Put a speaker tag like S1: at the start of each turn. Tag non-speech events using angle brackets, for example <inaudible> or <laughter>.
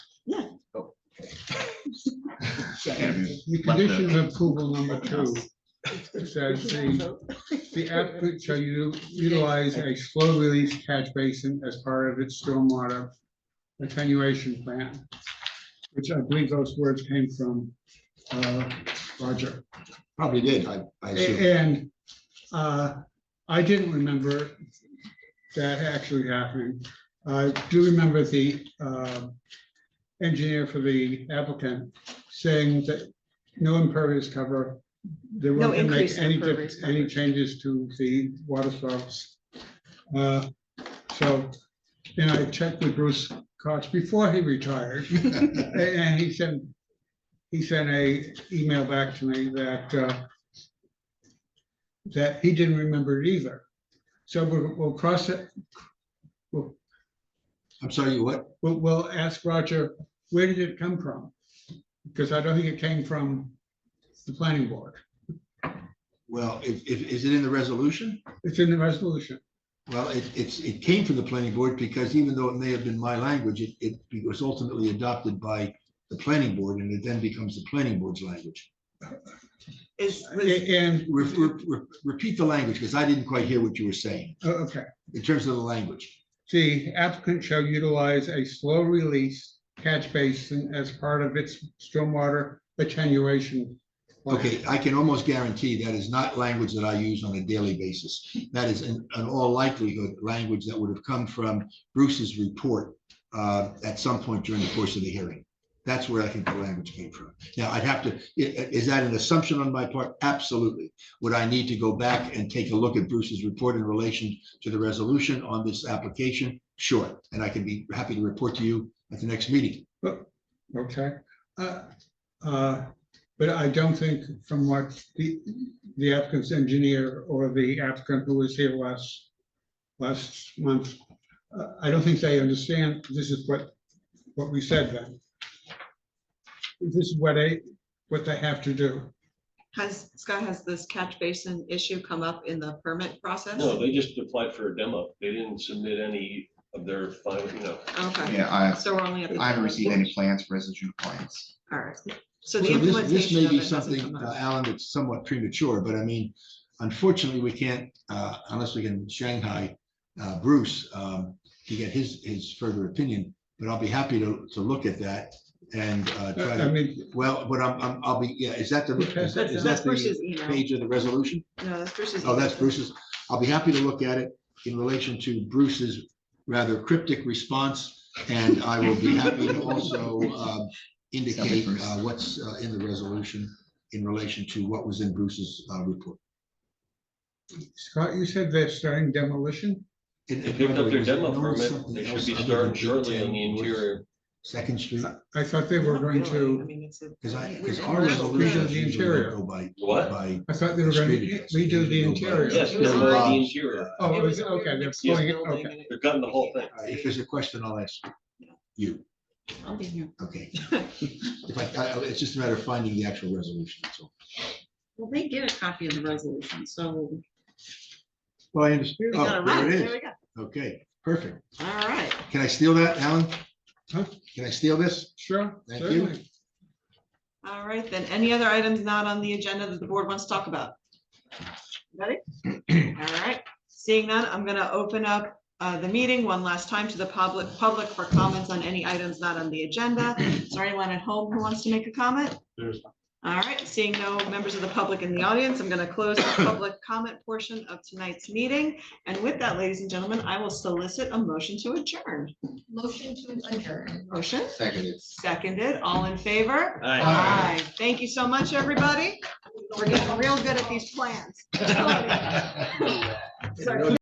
S1: And
S2: The
S1: let the-
S2: condition of approval number two says the, the applicant shall u- utilize a slow release catch basin as part of its stormwater attenuation plan, which I believe those words came from, uh, Roger.
S3: Probably did, I, I assume.
S2: A- And uh, I didn't remember that actually happening. I do remember the uh, engineer for the applicant saying that no impervious cover. They
S4: No
S2: weren't gonna
S4: increase
S2: make
S4: in
S2: any,
S4: impervious
S2: dif- any
S4: coverage.
S2: changes to the water source. Uh, So, and I checked with Bruce Cox before he retired. A- And he sent, he sent a email back to me that, uh, that he didn't remember it either. So we'll, we'll cross it, we'll,
S3: I'm sorry, you what?
S2: we'll, we'll ask Roger, where did it come from? Because I don't think it came from the planning board.
S3: Well, if, if, is it in the resolution?
S2: It's in the resolution.
S3: Well, it, it's, it came from the planning board because even though it may have been my language, it, it was ultimately adopted by the planning board and it then becomes the planning board's language.
S4: Is, was-
S2: A- And,
S3: Re- re- re- Repeat the language because I didn't quite hear what you were saying
S2: oh, okay,
S3: in terms of the language.
S2: the applicant shall utilize a slow release catch basin as part of its stormwater attenuation. plan.
S3: Okay, I can almost guarantee that is not language that I use on a daily basis. That is in, in all likelihood, language that would have come from Bruce's report uh, at some point during the course of the hearing. That's where I think the language came from. Now, I'd have to, i- i- is that an assumption on my part? Absolutely. Would I need to go back and take a look at Bruce's report in relation to the resolution on this application? Sure, and I can be happy to report to you at the next meeting.
S2: Oh, Okay, uh, uh, but I don't think from what the, the applicant's engineer or the applicant who was here last, last month, uh, I don't think they understand, this is what, what we said then. This is what they, what they have to do.
S4: has, Scott, has this catch basin issue come up in the permit process?
S5: No, they just applied for a demo. They didn't submit any of their final, you know,
S4: Okay,
S1: Yeah, I,
S4: so we're only at the.
S1: I haven't received any plans for residential clients.
S4: All right, so
S3: So
S4: the
S3: this, this
S4: implementation
S3: may
S4: of
S3: be
S4: it hasn't
S3: something,
S4: come
S3: uh,
S4: up.
S3: Alan, that's somewhat premature, but I mean, unfortunately, we can't, uh, unless we can Shanghai, uh, Bruce, um, to get his, his further opinion, but I'll be happy to, to look at that and, uh, try
S2: I
S3: to,
S2: mean,
S3: well, but I'm, I'm, I'll be, yeah, is that the, is that-
S4: That's
S3: is
S4: that's
S3: that the
S4: Bruce's email.
S3: page of the resolution?
S4: No, that's Bruce's.
S3: Oh, that's
S4: email.
S3: Bruce's. I'll be happy to look at it in relation to Bruce's rather cryptic response. And I will be happy to also um, indicate
S1: Bruce.
S3: uh, what's uh, in the resolution in relation to what was in Bruce's uh, report.
S2: Scott, you said they're starting demolition?
S3: And-
S5: they
S3: and
S5: picked
S3: by the
S5: up
S3: way,
S5: their
S3: was there
S5: demo
S3: no
S5: permit.
S3: something
S5: They should
S3: else
S5: be
S3: other
S5: starting
S3: than
S5: shortly on the
S3: 10 North
S5: interior.
S3: Second Street,
S2: I thought they were
S4: Not
S2: going
S4: really, I
S2: to,
S4: mean, it's a-
S3: because I,
S4: We-
S3: because our
S4: we're-
S3: resolutions
S2: The
S3: usually
S2: interior.
S3: don't go by,
S5: What?
S3: by,
S2: I thought they were going to redo the interior.
S5: Yes, they're
S4: Yeah.
S5: on the interior.
S2: Oh, it
S4: It
S2: was,
S4: was a
S2: okay,
S4: weird
S2: they're
S4: mixed-use
S2: pulling it,
S4: building
S2: okay.
S4: and it-
S5: They're gutting the whole thing.
S3: uh, if there's a question, I'll ask
S4: <laughs>
S3: you.
S4: I'll be here.
S3: Okay. If I, I- it's just a matter of finding the actual resolution, that's all.
S6: Well, they get a copy of the resolution, so.
S3: Well, I understand.
S4: We got
S3: Oh,
S4: it
S3: there
S4: right,
S3: it
S4: there we
S3: is.
S4: go.
S3: Okay, perfect.
S4: All right,
S3: Can I steal that, Alan?
S2: Huh?
S3: Can I steal this?
S2: Sure.
S3: Thank you.
S2: certainly.
S4: all right, then. Any other items not on the agenda that the board wants to talk about? Ready? All right, seeing none, I'm gonna open up uh, the meeting one last time to the public, public for comments on any items not on the agenda. Is there anyone at home who wants to make a comment? All right, seeing no members of the public in the audience, I'm gonna close the public comment portion of tonight's meeting. And with that, ladies and gentlemen, I will solicit a motion to adjourn.
S6: Motion to adjourn.
S4: Motion
S1: Seconded.
S4: seconded, all in favor?
S5: All right.
S1: Aye.
S4: Aye. Thank you so much, everybody. We're getting real good at these plans.
S3: I don't know